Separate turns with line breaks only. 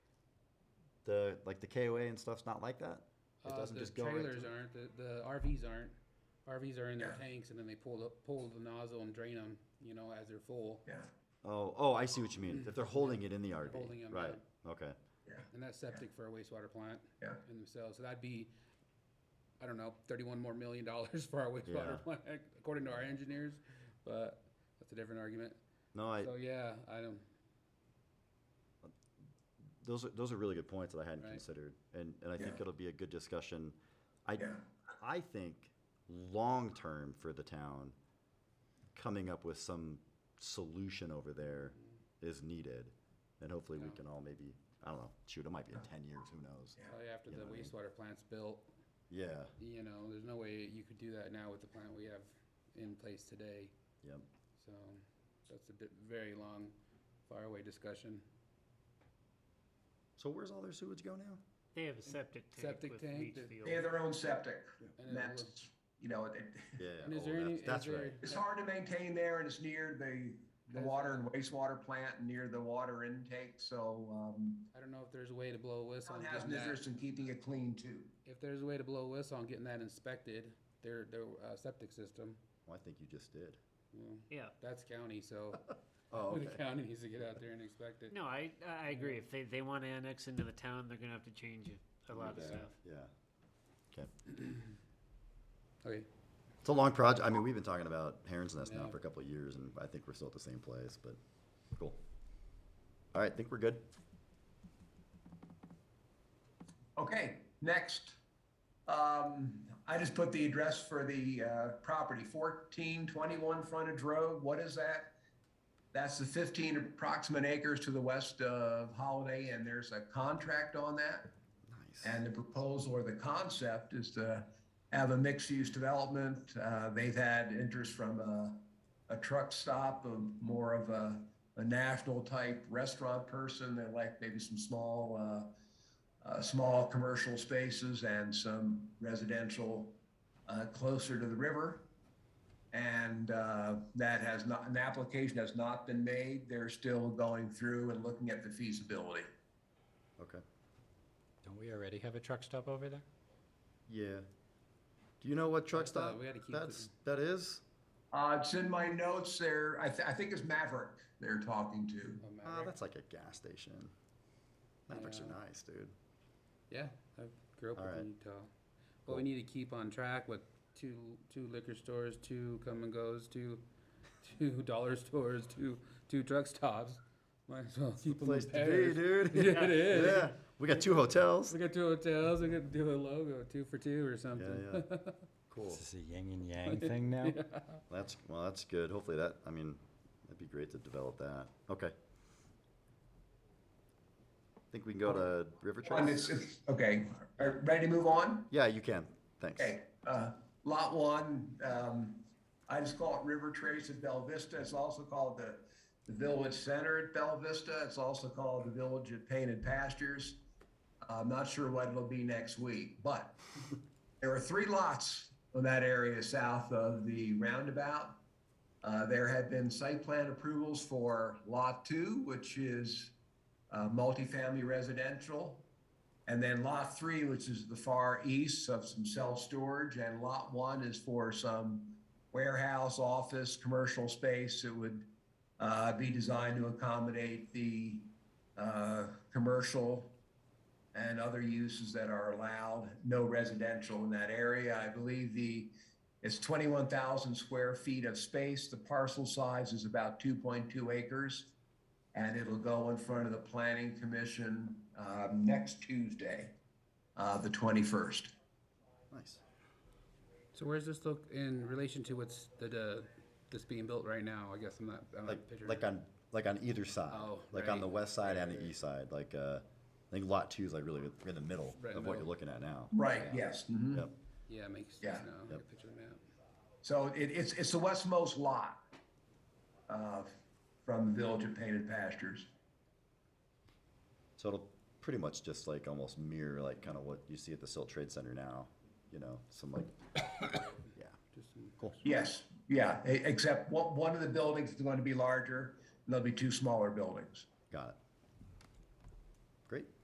The like the KOA and stuff's not like that. It
Uh,
doesn't
the
just go right
trailers
through?
aren't. The, the RVs aren't. RVs are in their tanks, and then they pull the pull the nozzle and drain them. You know, as they're full.
Yeah,
Oh, oh, I see what you mean. If they're holding it in the RV,
Holding 'em,
right? Okay.
yeah,
And that's septic for a wastewater plant
Yeah.
in themselves. So that'd be, I don't know, thirty-one more million dollars for our wastewater
Yeah.
plant, according to our engineers. But that's a different argument.
No, I,
so yeah, I don't.
those are those are really good points that I hadn't
Right.
considered, and and I think
Yeah.
it'll be a good discussion. I
Yeah.
I think long term for the town, coming up with some solution over there is needed, and hopefully we
Mm-hmm. Yeah.
can all maybe I don't know shoot it might be in ten years who knows
Yeah.
Probably after
You
the
know what I mean?
wastewater plant's built,
yeah
you know, there's no way you could do that now with the plant we have in place today.
yep
So that's a bit, very long, faraway discussion.
so where's all their sewage go now
They have a septic tank
Septic
with
tank
leach
that-
field.
they have their own septic,
And it
and that's, you know, it,
yeah
And is
oh,
there any-
that's, that's
is there-
right
it's hard to maintain there, and it's near the, the water and wastewater plant, and near the water intake, so, um,
I don't know if there's a way to blow a whistle
town
on
has
getting
an interest
that.
in keeping it clean too.
If there's a way to blow a whistle on getting that inspected, their, their uh, septic system,
well, I think you just did
you know,
Yeah.
that's county, so
oh
the
okay
county needs to get out there and inspect it.
No, I I agree. If they, they want to annex into the town, they're gonna have to change a lot of
Yeah.
stuff.
yeah okay
Okay,
It's a long project. I mean, we've been talking about Heron's Nest now
Yeah.
for a couple of years, and I think we're still at the same place, but cool. All right, I think we're good.
Okay, next. Um, I just put the address for the, uh, property, fourteen twenty-one frontage road, what is that? That's the fifteen approximate acres to the west of Holiday, and there's a contract on that.
Nice.
And the proposal or the concept is to have a mixed-use development. Uh, They've had interest from a, a truck stop, of more of a, a national-type restaurant person. They like maybe some small, uh, uh, small commercial spaces and some residential uh, closer to the river. And uh, that has not, an application has not been made. They're still going through and looking at the feasibility.
okay.
Don't we already have a truck stop over there?
Yeah. Do you know what truck
That's, uh,
stop
we gotta keep
that's that is?
Uh, it's in my notes there. I, th- I think it's Maverick they're talking to.
Oh, Maverick.
Ah, that's like a gas station. Mavericks are
Yeah.
nice, dude.
Yeah, I grew up
All
with
right.
Utah. But we need to keep on track with two two liquor stores, two come and goes, two two dollar stores, two two truck stops. Might as well keep them
Place
in
to be,
pairs.
dude.
Yeah, it is.
Yeah. We got two hotels.
We got two hotels. We could do a logo, two for two or
Yeah,
something.
yeah. Cool.
Is this a yin and yang thing now?
That's well, that's good. Hopefully that I mean, that'd be great to develop that. Okay. I think we can go to River
And
Trail.
it's, it's okay. Are, ready to move on?
Yeah, you can. Thanks.
Okay. Uh, lot one. Um, I just call it River Trace at Bell Vista. It's also called the, the Village Center at Bell Vista. It's also called the Village at Painted Pastures. I'm not sure what it'll be next week, but there are three lots in that area south of the roundabout. Uh, there have been site plan approvals for Lot 2, which is uh, multifamily residential, and then Lot 3, which is the far east of some self-storage, and Lot 1 is for some warehouse, office, commercial space that would uh, be designed to accommodate the uh, commercial and other uses that are allowed, no residential in that area. I believe the, it's 21,000 square feet of space. The parcel size is about 2.2 acres. And it'll go in front of the planning commission um, next Tuesday, uh, the 21st.
Nice.
So where's this look in relation to what's the, the that's being built right now? I guess I'm not. I'm not
Like
picturing.
like on like on either side.
Oh,
like on
right.
the west side and the east side. Like uh I think lot two is like really in the middle
Right in
of
the
what you're
middle.
looking at now.
Right, yes. mhm.
Yep.
yeah, it makes sense
Yeah.
now. I can picture the map.
So it, it's, it's the westmost lot uh, from the Village of Painted Pastures.
So it'll pretty much just like almost mirror like kind of what you see at the Silt Trade Center now. You know, some like yeah.
Just some,
Cool.
Yes, yeah, e- except one, one of the buildings is going to be larger, and there'll be two smaller buildings.
Got it. Great.